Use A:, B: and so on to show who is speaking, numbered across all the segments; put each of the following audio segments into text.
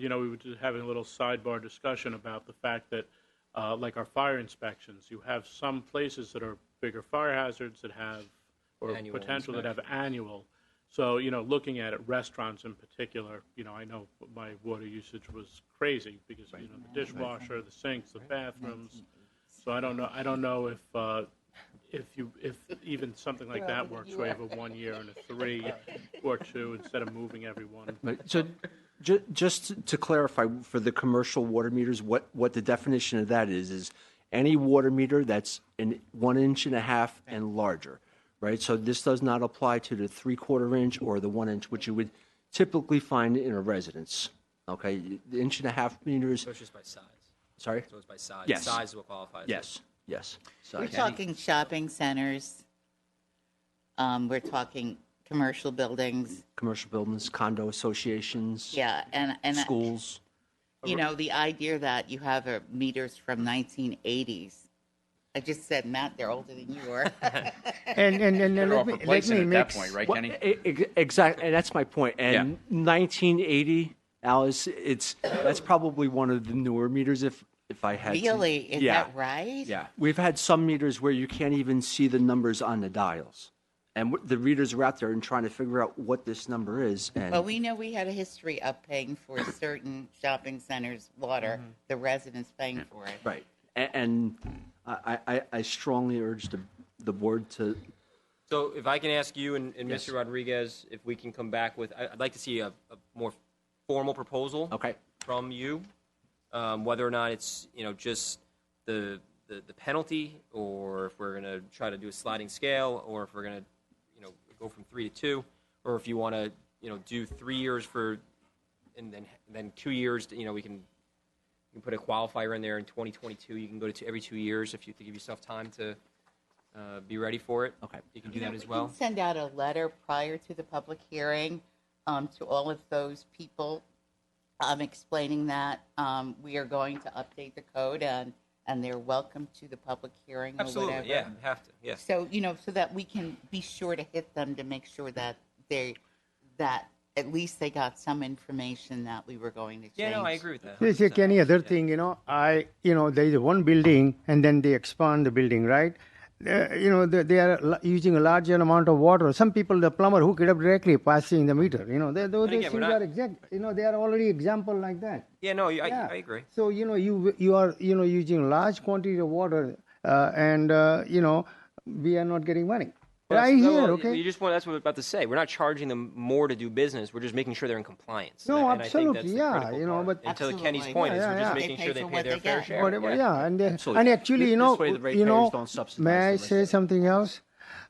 A: you know, we were just having a little sidebar discussion about the fact that, uh, like our fire inspections, you have some places that are bigger fire hazards that have, or
B: Annual
A: potential that have annual. So, you know, looking at it, restaurants in particular, you know, I know my water usage was crazy because, you know, the dishwasher, the sinks, the bathrooms. So I don't know, I don't know if, uh, if you, if even something like that works, where you have a one year and a three or two instead of moving every one.
C: Right, so ju- just to clarify, for the commercial water meters, what, what the definition of that is, is any water meter that's in one inch and a half and larger, right? So this does not apply to the three-quarter inch or the one inch, which you would typically find in a residence, okay? The inch and a half meters,
B: So it's just by size.
C: sorry?
B: So it's by size.
C: Yes.
B: Size is what qualifies. it.
C: Yes, yes.
D: We're
C: Sorry.
D: talking shopping centers. Um, we're talking commercial buildings.
C: Commercial buildings, condo associations,
D: Yeah, and, and, uh,
C: schools.
D: you know, the idea that you have uh, meters from nineteen eighties. I just said, Matt, they're older than you are.
E: And and and, and
F: They're
E: let
F: off
E: me, let
F: replacing
E: me
F: at that
E: mix.
F: point, right,
C: Well,
F: Kenny?
C: exactly, and eh, that's my point. And 1980, Alice, it's that's probably one of the newer meters. If if I had to-
D: Really? Is
C: yeah,
D: that right?
C: yeah, we've had some meters where you can't even see the numbers on the dials, and wh- the readers are out there and trying to figure out what this number is. And
D: Well, we know we had a history of paying for certain shopping centers' water,
C: Mm-hmm.
D: the residents paying for it.
C: right, and, and I, I I strongly urge the the board to
B: So if I can ask you and, and Mr. Rodriguez, if we can come back with, I- I'd like to see a, a more formal proposal.
C: Okay.
B: From you, um, whether or not it's, you know, just the, the, the penalty, or if we're gonna try to do a sliding scale, or if we're gonna, you know, go from three to two, or if you wanna, you know, do three years for, and then, then two years, you know, we can, you can put a qualifier in there in 2022, you can go to two- every two years if you, to give yourself time to, uh, be ready for it.
C: Okay.
B: You can do that
D: We
B: as
D: can
B: well.
D: Send out a letter prior to the public hearing um, to all of those people um, explaining that um, we are going to update the code and, and they're welcome to the public hearing or whatever.
B: Absolutely, yeah, have to, yes.
D: So, you know, so that we can be sure to hit them to make sure that they, that at least they got some information that we were going to change.
B: Yeah, no, I agree with that.
E: Yes, like any other
B: 100%.
E: thing, you know, I, you know, there is one building and then they expand the building, right? Uh, you know, they, they are la- using a larger amount of water. Some people, the plumber, hook it up directly, passing the meter. You know, they, those
B: again, we're
E: things
B: not-
E: are exact. You know, they are already example like that.
B: Yeah, no, you- I,
E: Yeah.
B: I agree.
E: So you know you you are you know using large quantity of water, uh, and uh, you know we are not getting money right
B: That's- no,
E: here.
B: well,
E: okay.
B: You just want, that's what I was about to say. We're not charging them more to do business. We're just making sure they're in compliance.
E: No,
B: And I- and I think
E: absolutely,
B: that's the
E: yeah,
B: critical
E: you know,
B: part.
E: but-
B: And to Kenny's
D: Absolutely.
B: point is
E: Yeah,
B: we're just
E: yeah, yeah.
B: making
D: They
B: sure
D: pay
B: they
D: for
B: pay
D: what
B: their
D: they
B: fair
D: get.
B: share.
E: Whatever, yeah. and uh,
C: Absolutely.
E: and actually,
C: Th-
E: you know,
C: this way the
E: you know,
C: ratepayers don't subsidize
E: may I
C: the
E: say
C: residents.
E: something else?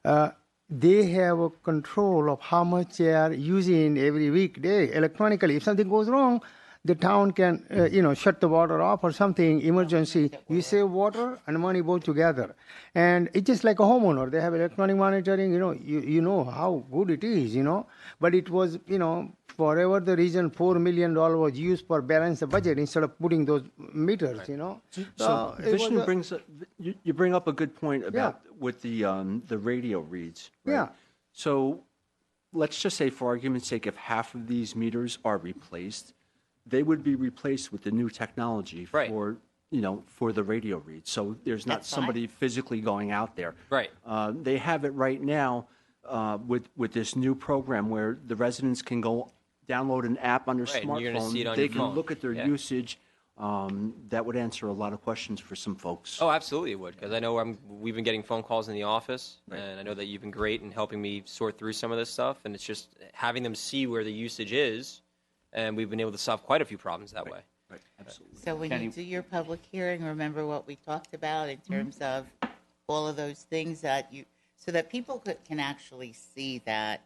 E: Uh, they have a control of how much they are using every weekday electronically. If something goes wrong, the town can, uh, you know, shut the water off or something, emergency. You save water and money both together. And it's just like a homeowner. They have electronic monitoring, you know, you, you know how good it is, you know. But it was, you know, forever the reason $4 million was used for balance the budget instead of putting those meters, you know.
C: So
E: Uh, it was
C: Vishnu
E: a-
C: brings, up- you you bring up a good point about with the, um, the radio reads. right?
E: Yeah.
C: So let's just say for argument's sake, if half of these meters are replaced, they would be replaced with the new technology
B: Right.
C: for, you know, for the radio reads. So there's not
D: That's fine.
C: somebody physically going out there.
B: Right.
C: Uh, They have it right now uh, with, with this new program where the residents can go download an app on their
B: Right, and
C: smartphone.
B: you're gonna see it on
C: They
B: your
C: can
B: phone.
C: look at their
B: Yeah.
C: usage usage, um, that would answer a lot of questions for some folks.
B: Oh, absolutely it would, because I know I'm, we've been getting phone calls in the office, and I know that you've been great in helping me sort through some of this stuff, and it's just having them see where the usage is, and we've been able to solve quite a few problems that way.
C: Right, absolutely.
D: So when you do your public hearing, remember what we talked about in
C: Mm-hmm.
D: terms of all of those things that you, so that people could, can actually see that,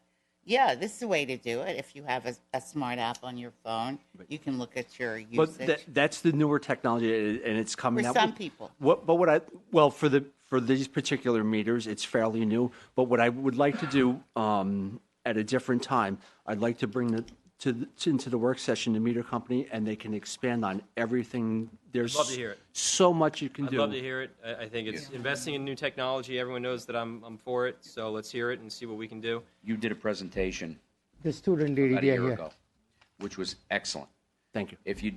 D: yeah, this is the way to do it. If you have a, a smart app on your phone, you can look at your
C: But that,
D: usage.
C: that's the newer technology, a- and it's coming
D: For
C: out.
D: some people.
C: What, but what I well for the for these particular meters, it's fairly new. But what I would like to do um, at a different time, I'd like to bring the to, the- to into the work session the meter company, and they can expand on everything. There's
B: love to hear it.
C: so much you can
B: I'd
C: do.
B: love to hear it. I, I think it's investing in new technology. Everyone knows that I'm, I'm for it, so let's hear it and see what we can do.
F: You did a presentation
E: The student lady
F: about a
E: they are
F: year
E: here.
F: ago, which was excellent.
C: Thank you.
F: If you